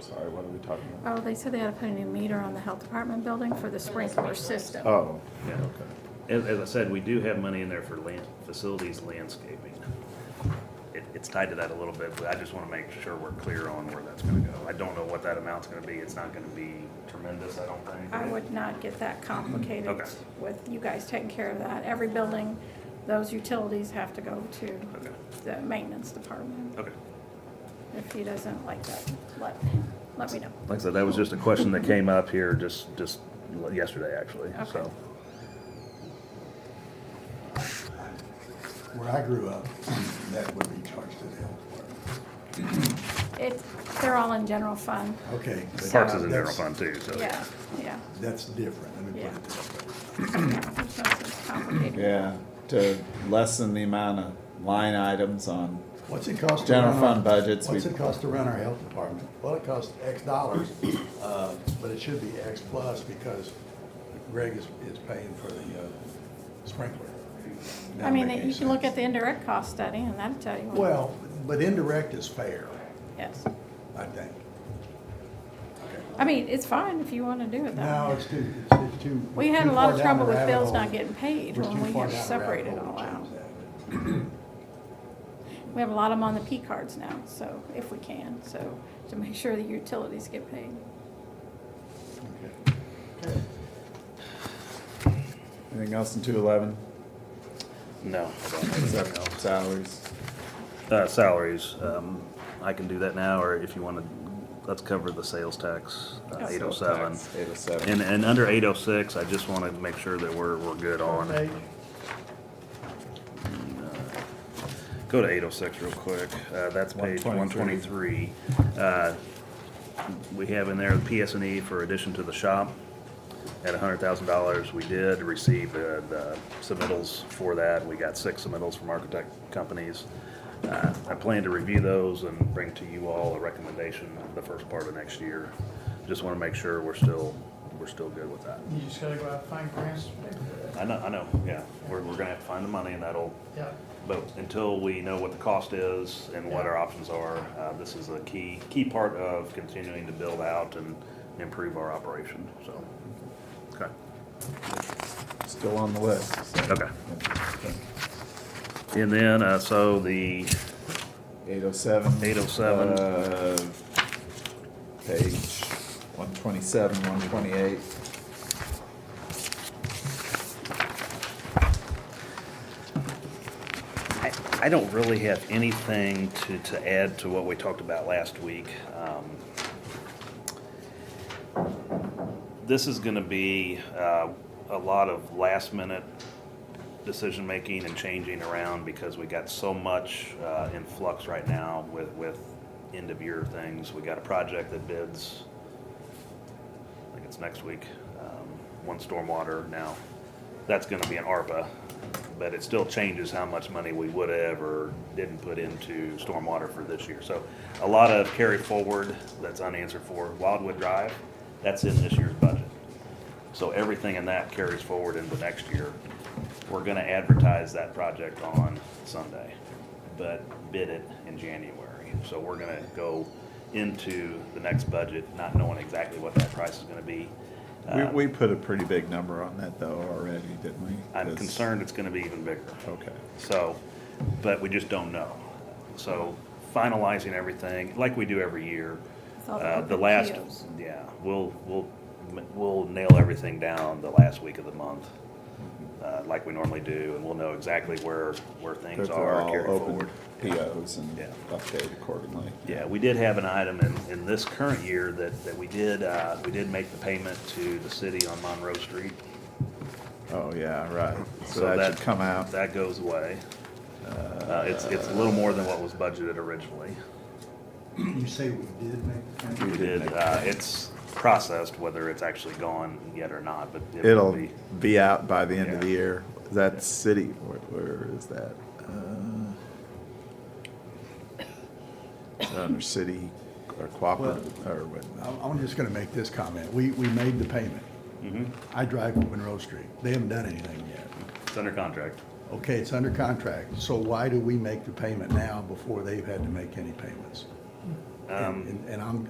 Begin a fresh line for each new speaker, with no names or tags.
Sorry, what are we talking about?
Oh, they said they had to put a new meter on the health department building for the sprinkler system.
Oh,
Yeah.
okay.
As, as I said, we do have money in there for land, facilities landscaping. It, it's tied to that a little bit, but I just wanna make sure we're clear on where that's gonna go. I don't know what that amount's gonna be, it's not gonna be tremendous, I don't think.
I would not get that complicated
Okay.
with you guys taking care of that. Every building, those utilities have to go to
Okay,
the maintenance department.
okay.
If he doesn't like that, let, let me know.
Like I said, that was just a question that came up here just, just yesterday, actually, so.
Okay.
Where I grew up, that would be charged to the health department.
It, they're all in general fund.
Okay. but uh,
Parks is in general
that's-
fund too, so.
Yeah, yeah.
That's different, let me put
Yeah.
it that way.
There's no such complicated.
Yeah, to lessen the amount of line items on,
What's it cost? to
General
run our-
fund budgets, we-
What's it cost to run our health department? Well, it costs X dollars, uh, but it should be X plus because Greg is, is paying for the uh, sprinkler.
I
Doesn't
mean,
make any
you can look at
sense.
the indirect cost study and that'll tell you.
Well, but indirect is fair,
Yes.
I think.
I mean, it's fine if you want to do it that
No,
way.
it's too, it's it's too.
We
we're
had a
too
lot
far
of
down
trouble
the
with
rabbit
bills
hole.
not getting paid
We're
when
too
we
far
have
down the rabbit
separated
hole
all
to
out.
change that.
We have a lot of them on the P cards now, so, if we can, so, to make sure the utilities get paid.
anything else in two eleven?
No. I don't have anything else.
Salaries.
Uh, salaries, um, I can do that now, or if you wanna, let's cover the sales tax,
Oh.
eight oh seven.
Eight oh
And,
seven.
and under eight oh six, I just wanna make sure that we're, we're good on. uh,
Okay.
Go to eight oh six real quick, uh, that's page one twenty-three.
123.
Uh, we have in there the PS and E for addition to the shop at hundred thousand dollars. We did receive, uh, the submittals for that. We got six submittals from architect companies. Uh, I plan to review those and bring to you all a recommendation the first part of next year. Just wanna make sure we're still, we're still good with that.
You just gotta go out and find grants to pay for that.
I know, I know, yeah. We're, we're gonna have to find the money and that'll
Yeah,
but until we know what the cost is and what our options are, uh, this is a key, key part of continuing to build out and improve our operation, so. Okay,
Still on the list.
okay. And then, uh, so the,
Eight oh seven. Uh,
807.
Page one twenty-seven, one twenty-eight.
I, I don't really have anything to, to add to what we talked about last week. Um, This is gonna be, uh, a lot of last minute decision-making and changing around because we got so much uh, in flux right now with, with end-of-year things. We got a project that bids, I think it's next week, um, one stormwater now. That's gonna be an ARPA, but it still changes how much money we would have or didn't put into stormwater for this year. So a lot of carry forward that's unanswered for. Wildwood Drive, that's in this year's budget. So everything in that carries forward into next year. We're gonna advertise that project on Sunday, but bid it in January. So we're gonna go into the next budget not knowing exactly what that price is gonna be. Uh,
We, we put a pretty big number on that though already, didn't we?
I'm
This-
concerned it's gonna be even bigger.
Okay.
So, but we just don't know. So finalizing everything, like we do every year.
It's all
Uh, the
open
last,
POs.
yeah, we'll, we'll, we'll nail everything down the last week of the month, uh, like we normally do, and we'll know exactly where, where
Those
things
are
are
all
carried
open
forward.
POs and
Yeah.
updated accordingly.
Yeah, we did have an item in, in this current year that, that we did, uh, we did make the payment to the city on Monroe Street.
Oh, yeah, right. So that should come out.
That goes away. Uh, it's, it's a little more than what was budgeted originally.
You say we did make the
We
We
did
change?
did,
make
uh, it's processed, whether it's actually gone yet or not, but it will
It'll
be.
be out by the end of the
Yeah.
year. That city, where, where is that? Uh, is that Under city or cooperative or what?
I'm, I'm just gonna make this comment. We, we made the payment.
Mm-hmm.
I drive up Monroe Street. They haven't done anything yet.
It's under contract.
Okay, it's under contract, so why
Um,
do we make the payment now before they've had to make any payments? And, and I'm,